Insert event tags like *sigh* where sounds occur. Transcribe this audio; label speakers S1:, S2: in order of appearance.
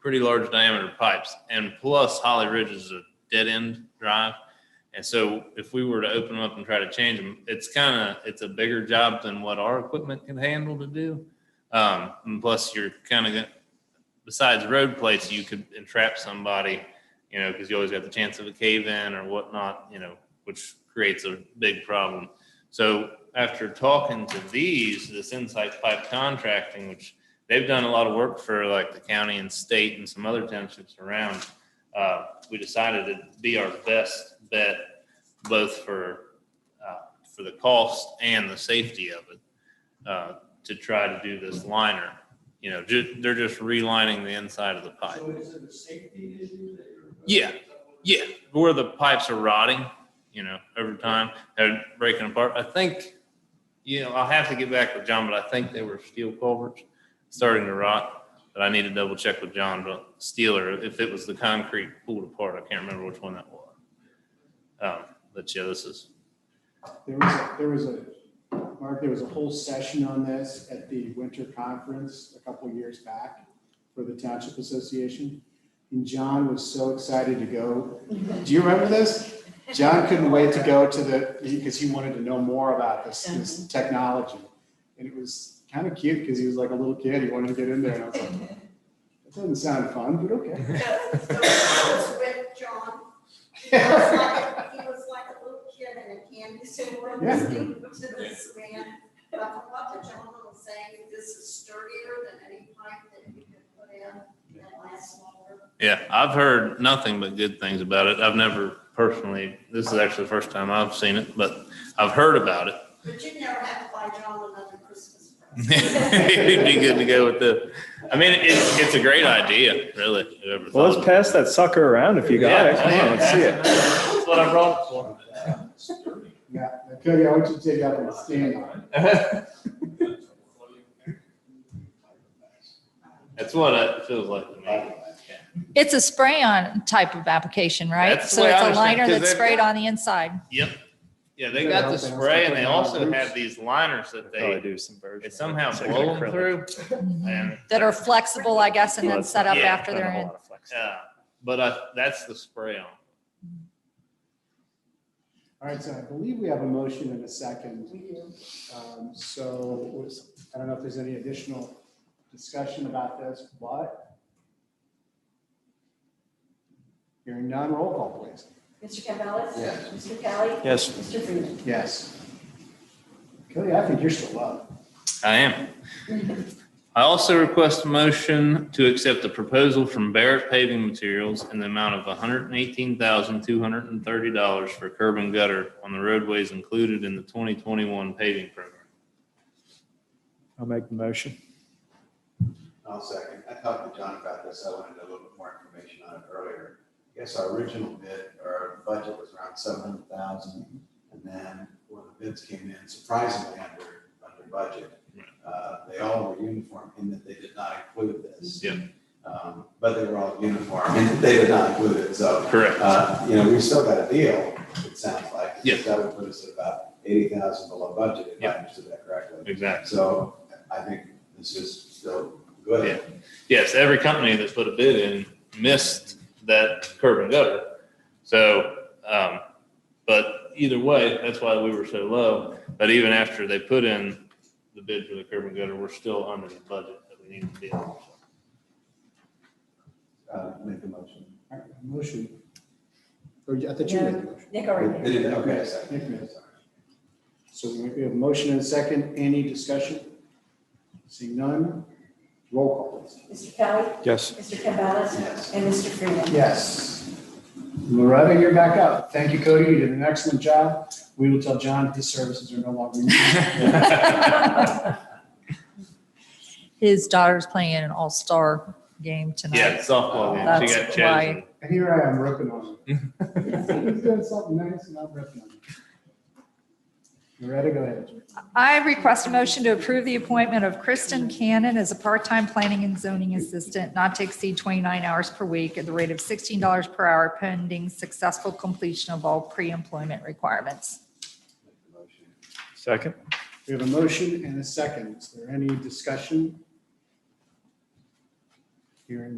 S1: pretty large diameter pipes. And plus Holly Ridge is a dead end drive. And so if we were to open them up and try to change them, it's kind of, it's a bigger job than what our equipment can handle to do. Um, and plus you're kind of, besides road plates, you could entrap somebody, you know, because you always got the chance of a cave in or whatnot, you know, which creates a big problem. So after talking to these, this Insight Pipe Contracting, which they've done a lot of work for like the county and state and some other townships around, uh, we decided it'd be our best bet, both for, uh, for the cost and the safety of it, uh, to try to do this liner. You know, ju- they're just relining the inside of the pipe.
S2: So is it a safety issue that you're?
S1: Yeah, Yeah, where the pipes are rotting, you know, over time, they're breaking apart. I think, you know, I'll have to get back with John, but I think they were steel culverts starting to rot. But I need to double check with John, but steel or if it was the concrete pulled apart, I can't remember which one that was. Um, but yeah, this is,
S3: There was, a- there was a, Mark, there was a whole session on this at the winter conference a couple years back for the Township Association. And John was so excited to go. Do you remember this? John couldn't wait to go to the, because he wanted to know more about this, this technology. And it was kind of cute because he was like a little kid. He wanted to get in there and I was like, that doesn't sound fun, but okay.
S4: So so I was with John. He was like, he was like a little kid in a candy store,
S3: Yeah.
S4: listening to this man. But I thought the gentleman was saying this is sturdier than any pipe that you could put in and last longer.
S1: yeah, I've heard nothing but good things about it. I've never personally, this is actually the first time I've seen it, but I've heard about it.
S4: But you never have to buy John another Christmas present.
S1: It'd be good to go with the, I mean, it's, it's a great idea, really. whoever
S5: Well, let's
S1: thought
S5: pass that sucker around if you got it. Come on, let's see
S2: *laughs*
S5: it.
S1: That's what I brought for.
S5: *laughs*
S3: Yeah, Cody, I want you to take up and stand on it.
S5: *laughs*
S1: That's what it feels like to me.
S6: It's a spray-on type of application, right?
S1: That's the
S6: So
S1: way I
S6: it's a
S1: understand it,
S6: liner
S1: 'cause
S6: that's
S1: they've
S6: sprayed
S1: got-
S6: on the inside.
S1: Yep. Yeah, they got the spray and they also have these liners that
S5: Probably
S1: they,
S5: do some version.
S1: it
S5: It's
S1: somehow blow them through. And,
S6: That are flexible, I guess, and then
S5: Let's
S6: set up
S1: not- yeah,
S6: after they're in.
S1: yeah, but I, that's the spray on.
S3: All right, so I believe we have a motion and a second.
S4: We do.
S3: Um, So was- I don't know if there's any additional discussion about this, but hearing none, roll call, please.
S7: Mr. Campbell.
S2: Yes.
S7: Mr. Kelly.
S5: Yes.
S7: Mr. Freeman.
S3: Yes. Kelly, I think you're still up.
S1: I am. I also request a motion to accept the proposal from Barrett Paving Materials in the amount of hundred and eighteen thousand, two hundred and thirty dollars for curb and gutter on the roadways included in the twenty twenty-one paving program.
S5: I'll make the motion.
S2: I'll second. I talked to John about this. I wanted a little bit more information on it earlier. I guess our original bid, our budget was around seven hundred thousand. And then when the bids came in surprisingly under, under budget, uh, they all were uniform in that they did not include this.
S1: Yeah.
S2: Um, But they were all uniform in that they did not include it. So
S1: Correct.
S2: Uh, You know, we've still got a deal, it sounds like.
S1: Yeah.
S2: That would put us at about eighty thousand below budget, if
S1: Yeah.
S2: I understood that correctly.
S1: Exactly.
S2: So I think this is still good.
S1: Yes, every company that put a bid in missed that curb and gutter. So, um, but either way, that's why we were so low. But even after they put in the bid for the curb and gutter, we're still under the budget that we need to be. on.
S2: Uh, Make the motion.
S3: All right, Motion. Or I thought you made the motion.
S7: Nick already
S2: They
S7: did.
S2: did- Okay, second.
S3: Nick made it. So we have a motion and a second. Any discussion? Seeing none, roll call, please.
S7: Mr. Kelly.
S5: Yes.
S7: Mr. Campbell.
S2: Yes.
S7: And Mr. Freeman.
S3: Yes. Loretta, you're back up. Thank you, Cody. You did an excellent job. We will tell John his services are no longer needed.
S6: *laughs* His daughter's playing in an all-star game
S1: Yeah,
S6: tonight.
S1: softball. game. She got
S6: That's
S1: chosen.
S3: And *laughs* here I am ripping on him. *laughs* He's doing something nice and I'm ripping on him. Loretta, go ahead.
S6: I request a motion to approve the appointment of Kristen Cannon as a part-time planning and zoning assistant, not to exceed 29 hours per week at the rate of $16 per hour pending successful completion of all pre-employment requirements.
S2: Make the motion.
S5: Second?
S3: We have a motion and a second. Is there any discussion? Hearing